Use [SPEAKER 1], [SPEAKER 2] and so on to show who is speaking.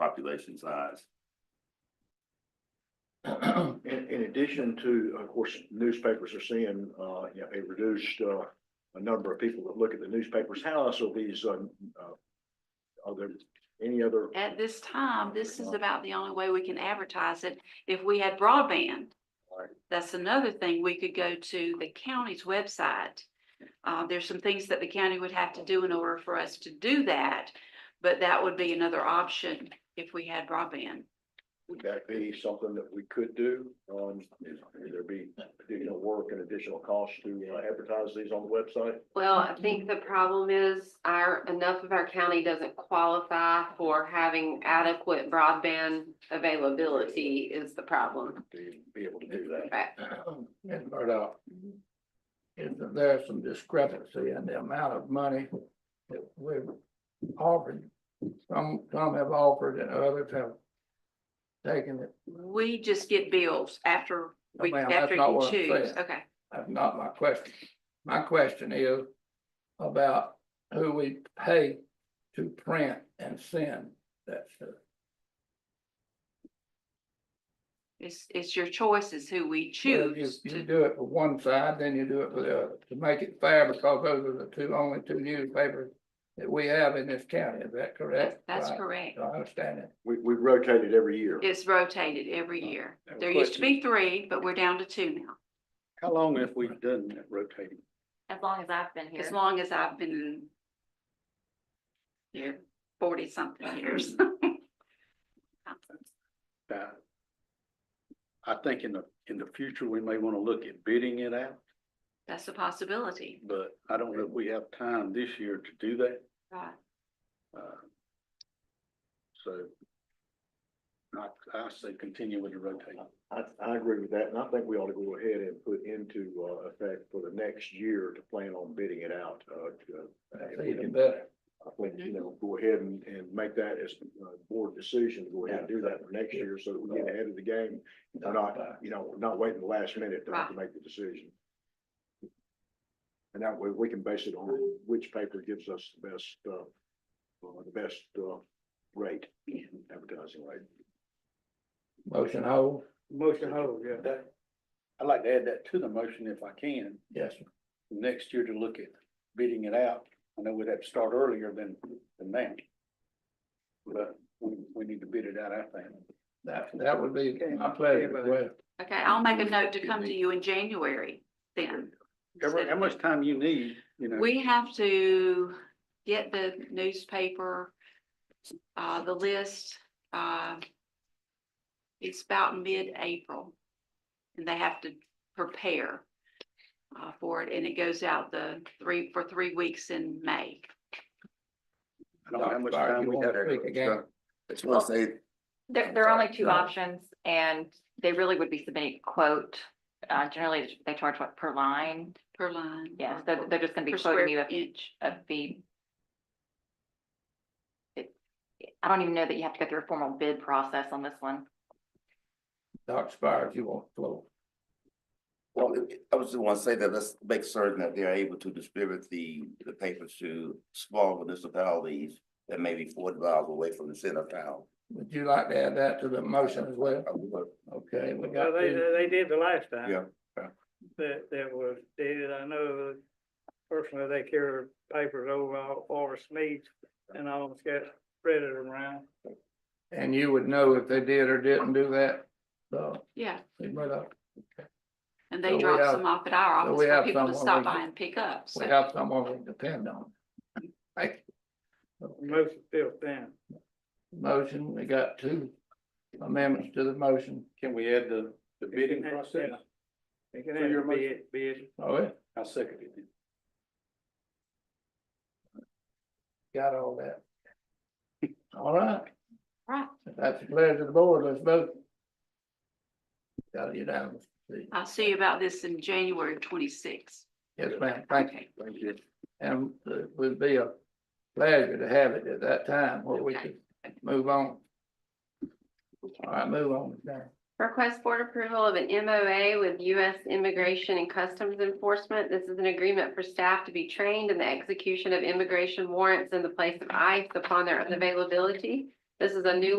[SPEAKER 1] population size.
[SPEAKER 2] In, in addition to, of course, newspapers are seeing, uh, you know, a reduced, uh, a number of people that look at the newspapers. How else are these, um, uh, are there any other?
[SPEAKER 3] At this time, this is about the only way we can advertise it. If we had broadband.
[SPEAKER 2] Right.
[SPEAKER 3] That's another thing. We could go to the county's website. Uh, there's some things that the county would have to do in order for us to do that. But that would be another option if we had broadband.
[SPEAKER 2] Would that be something that we could do? Um, is- would there be additional work and additional cost to uh, advertise these on the website?
[SPEAKER 4] Well, I think the problem is our, enough of our county doesn't qualify for having adequate broadband availability is the problem.
[SPEAKER 2] To be able to do that?
[SPEAKER 4] Right.
[SPEAKER 5] And Murdoch, is that there's some discrepancy in the amount of money that we've offered. Some, some have offered and others have taken it.
[SPEAKER 3] We just get bills after
[SPEAKER 5] No,
[SPEAKER 3] we,
[SPEAKER 5] Oh, ma'am, that's
[SPEAKER 3] after
[SPEAKER 5] not
[SPEAKER 3] you
[SPEAKER 5] what I'm
[SPEAKER 3] choose.
[SPEAKER 5] saying.
[SPEAKER 3] Okay.
[SPEAKER 5] That's not my question. My question is about who we pay to print and send that stuff.
[SPEAKER 3] It's, it's your choice is who we
[SPEAKER 5] Well,
[SPEAKER 3] choose
[SPEAKER 5] You you
[SPEAKER 3] to,
[SPEAKER 5] do it for one side, then you do it for the other, to make it fair, because those are the two, only two newspapers that we have in this county, is that correct?
[SPEAKER 3] that's
[SPEAKER 5] Right.
[SPEAKER 3] correct.
[SPEAKER 5] Do I understand it.
[SPEAKER 2] We, we rotate it every year.
[SPEAKER 3] It's rotated every year.
[SPEAKER 6] Now,
[SPEAKER 3] There used to
[SPEAKER 6] question.
[SPEAKER 3] be three, but we're down to two now.
[SPEAKER 6] How long have we done that rotating?
[SPEAKER 7] As long as I've been
[SPEAKER 3] as
[SPEAKER 7] here,
[SPEAKER 3] long as I've been here, forty something years.
[SPEAKER 6] Uh, I think in the, in the future, we may want to look at bidding it out,
[SPEAKER 3] That's a possibility,
[SPEAKER 6] but I don't know if we have time this year to do that.
[SPEAKER 3] right?
[SPEAKER 6] Uh, So I, I say continue with the rotating.
[SPEAKER 2] I, I agree with that, and I think we ought to go ahead and put into, uh, effect for the next year to plan on bidding it out, uh, to-
[SPEAKER 5] That's even better.
[SPEAKER 2] I think, you know, go ahead and, and make that as a board decision, to go ahead and do that for next year, so that we get ahead of the game. We're not, uh, you know, we're not waiting the last minute to to make the decision. And that way, we can base it on which paper gives us the best, uh, uh, the best, uh, rate, advertising rate.
[SPEAKER 5] Motion hold,
[SPEAKER 6] Motion hold, yeah. I'd like to add that to the motion if I can,
[SPEAKER 5] yes, sir.
[SPEAKER 6] next year to look at bidding it out. I know we'd have to start earlier than, than now. But we, we need to bid it out, I think.
[SPEAKER 5] that, that would be my pleasure, as well.
[SPEAKER 3] Okay, I'll make a note to come to you in January then.
[SPEAKER 6] However, how much time you need, you know.
[SPEAKER 3] We have to get the newspaper, uh, the list, uh, it's about mid-April. And they have to prepare, uh, for it, and it goes out the three, for three weeks in May.
[SPEAKER 6] I don't know how much time
[SPEAKER 5] You
[SPEAKER 6] we
[SPEAKER 5] wanna
[SPEAKER 6] have.
[SPEAKER 5] speak again?
[SPEAKER 1] It's once they,
[SPEAKER 7] there, there are only two
[SPEAKER 5] No.
[SPEAKER 7] options and they really would be submitting a quote. Uh, generally, they charge what per line?
[SPEAKER 3] Per line.
[SPEAKER 7] Yeah,
[SPEAKER 3] or
[SPEAKER 7] so
[SPEAKER 3] per-
[SPEAKER 7] they're just gonna be
[SPEAKER 3] Per square
[SPEAKER 7] quoting you a,
[SPEAKER 3] inch.
[SPEAKER 7] a fee. It- I don't even know that you have to go through a formal bid process on this one.
[SPEAKER 5] Dr. Spires, you want to flow?
[SPEAKER 1] well, I was just want to say that let's make certain that they're able to distribute the, the papers to small municipalities that may be forty miles away from the center of town.
[SPEAKER 5] Would you like to add that to the motion as well?
[SPEAKER 1] I would.
[SPEAKER 5] Okay, we got
[SPEAKER 8] Well, they,
[SPEAKER 5] to,
[SPEAKER 8] they did the last time.
[SPEAKER 1] Yeah, yeah.
[SPEAKER 8] That, that was, did, I know personally they carried papers over all Forest Meads and all almost got spread it around.
[SPEAKER 5] and you would know if they did or didn't do that, so,
[SPEAKER 3] Yeah,
[SPEAKER 5] we might have-
[SPEAKER 3] and
[SPEAKER 5] So
[SPEAKER 3] they
[SPEAKER 5] we
[SPEAKER 3] drop
[SPEAKER 5] have-
[SPEAKER 3] some off at our
[SPEAKER 5] so
[SPEAKER 3] office
[SPEAKER 5] we
[SPEAKER 3] for
[SPEAKER 5] have
[SPEAKER 3] people to
[SPEAKER 5] someone
[SPEAKER 3] stop
[SPEAKER 5] we
[SPEAKER 3] by
[SPEAKER 5] can-
[SPEAKER 3] and pick up,
[SPEAKER 5] we
[SPEAKER 3] so.
[SPEAKER 5] have someone we can depend on. Thank you.
[SPEAKER 8] Most of still thin.
[SPEAKER 5] Motion, we got two amendments to the motion,
[SPEAKER 6] Can we add the, the bidding process?
[SPEAKER 8] Yeah. It can
[SPEAKER 6] So your
[SPEAKER 8] have to be,
[SPEAKER 6] motion-
[SPEAKER 8] it- be it.
[SPEAKER 5] Oh, we
[SPEAKER 6] I second it.
[SPEAKER 5] got all that. All right,
[SPEAKER 3] Right,
[SPEAKER 5] if that's the pleasure of the board, let's vote. Got it unanimous,
[SPEAKER 3] I'll see you about this in January twenty-sixth.
[SPEAKER 5] yes, ma'am, thank you.
[SPEAKER 3] Okay.
[SPEAKER 6] Thank you.
[SPEAKER 5] And it would be a pleasure to have it at that time where we could move on. All right, move on. now.
[SPEAKER 4] Request board approval of an MOA with U.S. Immigration and Customs Enforcement. This is an agreement for staff to be trained in the execution of immigration warrants in the place of ICE upon their availability. This is a new